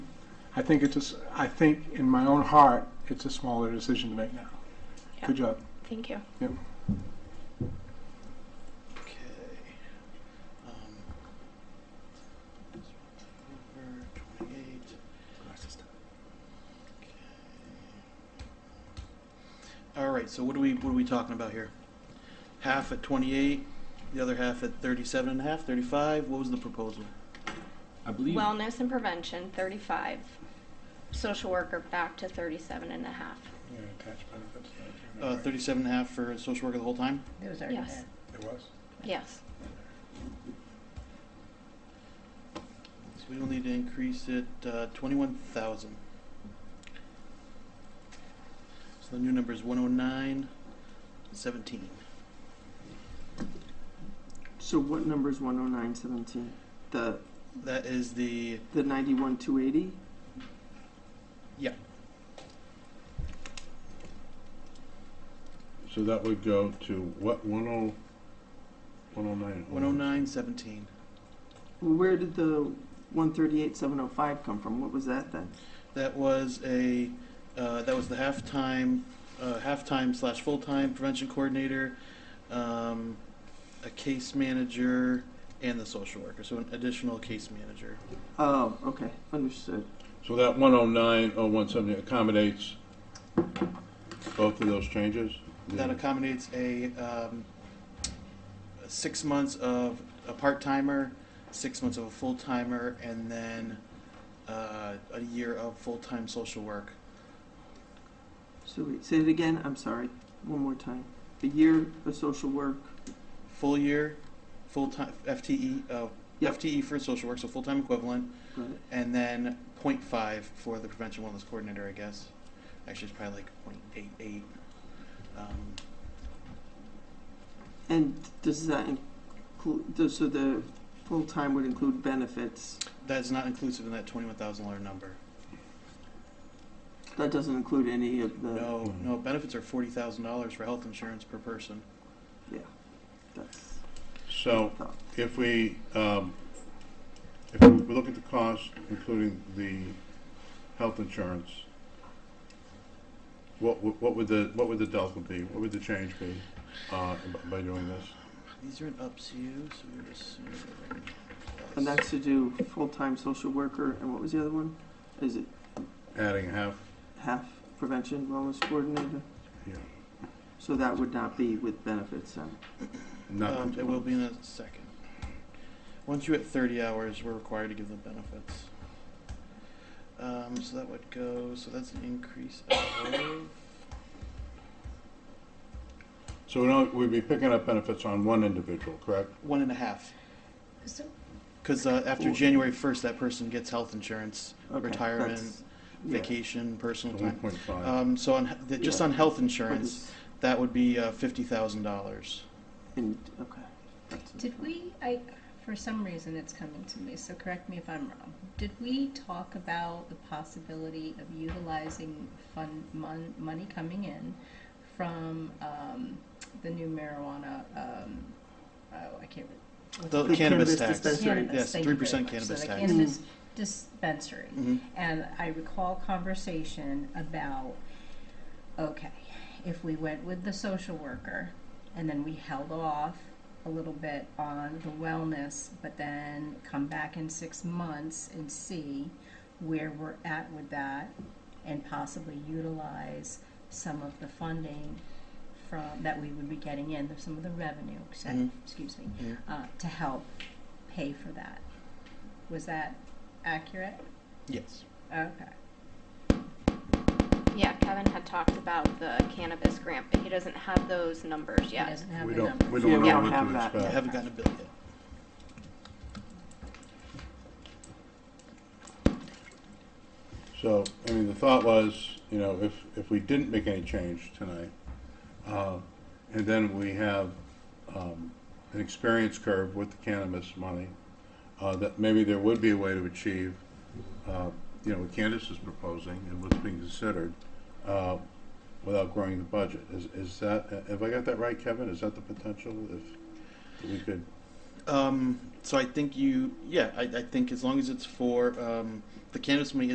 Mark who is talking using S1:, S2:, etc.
S1: I think it's, a s- I think in my own heart, it's a smaller decision to make now. Good job.
S2: Thank you.
S3: Okay. Um, this one over, 28. All right, so what are we, what are we talking about here? Half at 28, the other half at 37 and a half, 35? What was the proposal?
S4: I believe
S2: Wellness and prevention, 35. Social worker back to 37 and a half.
S1: Yeah, attached benefits.
S3: Uh, 37 and a half for social worker the whole time?
S5: It was already
S2: Yes.
S5: there.
S1: It was.
S2: Yes.
S3: So we will need to increase it uh, 21,000. So the new number is 109, 17.
S6: So what number is one oh nine seventeen? The
S3: That is the
S6: the ninety one two eighty?
S7: So that would go to what, one oh, one oh nine?
S3: 109, 17.
S6: Where did the one thirty eight seven oh five come from? What was that then?
S3: That was a uh, that was the halftime uh, halftime slash full time prevention coordinator, um, a case manager, and the social worker. So an additional case manager.
S6: Oh, okay, understood.
S7: So that one oh nine, oh one seventy accommodates both of those changes?
S3: That accommodates a um, six months of a part timer, six months of a full timer, and then uh, a year of full time social work.
S6: So wait, say it again, I'm sorry, one more time. A year of social work,
S3: Full year, full time FTE uh,
S6: Yep.
S3: FTE for social work, so full time equivalent.
S6: right?
S3: And then 0.5 for the prevention wellness coordinator, I guess. Actually, it's probably like 0.88. Um,
S6: And does that include, does- so the full time would include benefits?
S3: That's not inclusive in that $21,000 number.
S6: That doesn't include any of the,
S3: No, no, benefits are $40,000 for health insurance per person.
S6: that's,
S7: So if we, um, if we look at the cost, including the health insurance, what, would- what would the, what would the delta be? What would the change be, uh, by doing this?
S3: These are in up to you, so we're just.
S6: and that's to do full time social worker, and what was the other one? Is it
S7: Adding half,
S6: half prevention wellness coordinator?
S7: yeah,
S6: So that would not be with benefits then?
S7: not.
S3: Um, it will be in a second. Once you hit 30 hours, we're required to give them benefits. Um, so that would go, so that's an increase of.
S7: So we don't, we'd be picking up benefits on one individual, correct?
S3: One and a half.
S5: So,
S3: Because uh, after
S6: Ooh.
S3: January 1st, that person gets health insurance,
S6: Okay,
S3: retirement,
S6: that's- yeah.
S3: vacation, personal
S7: One
S3: time.
S7: point five.
S3: Um, so on he- the, just
S6: Yeah.
S3: on health
S6: But
S3: insurance,
S6: it's-
S3: that would be uh, fifty thousand dollars.
S6: And, okay. That's-
S5: did we, I, for some reason it's coming to me, so correct me if I'm wrong. Did we talk about the possibility of utilizing fund, mon, money coming in from, um, the new marijuana, um, oh, I can't. re-
S3: The
S6: The
S3: cannabis
S6: cannabis
S3: tax.
S6: dispensary.
S5: Cannabis,
S3: Yes,
S5: thank you
S3: three
S5: very
S3: percent
S5: much. So
S3: cannabis
S5: the
S3: tax.
S5: Cannabis
S6: Mm-hmm.
S5: dispensary.
S3: Mhm.
S5: And I recall conversation about, okay, if we went with the social worker and then we held off a little bit on the wellness, but then come back in six months and see where we're at with that and possibly utilize some of the funding from, that we would be getting in, some of the revenue, ex-
S3: Mhm.
S5: excuse me,
S3: Mhm.
S5: uh, to help pay for that. Was that accurate?
S3: Yes.
S5: Okay.
S2: Yeah, Kevin had talked about the cannabis grant, but he doesn't have those numbers
S5: He
S2: yet.
S5: doesn't have
S7: We
S5: the
S7: don't, we
S5: numbers.
S6: Yeah,
S7: don't
S6: we
S7: know
S6: don't
S7: what
S6: have
S7: to
S6: that.
S3: I
S7: expect.
S3: haven't gotten a bill yet.
S7: So, I mean, the thought was, you know, if, if we didn't make any change tonight, uh, and then we have, um, an experience curve with the cannabis money, uh, that maybe there would be a way to achieve, uh, you know, what Candace is proposing and what's being considered, uh, without growing the budget. Is, is that, have I got that right, Kevin? Is that the potential if we could?
S3: Um, so I think you, yeah, I, I think as long as it's for um, the cannabis money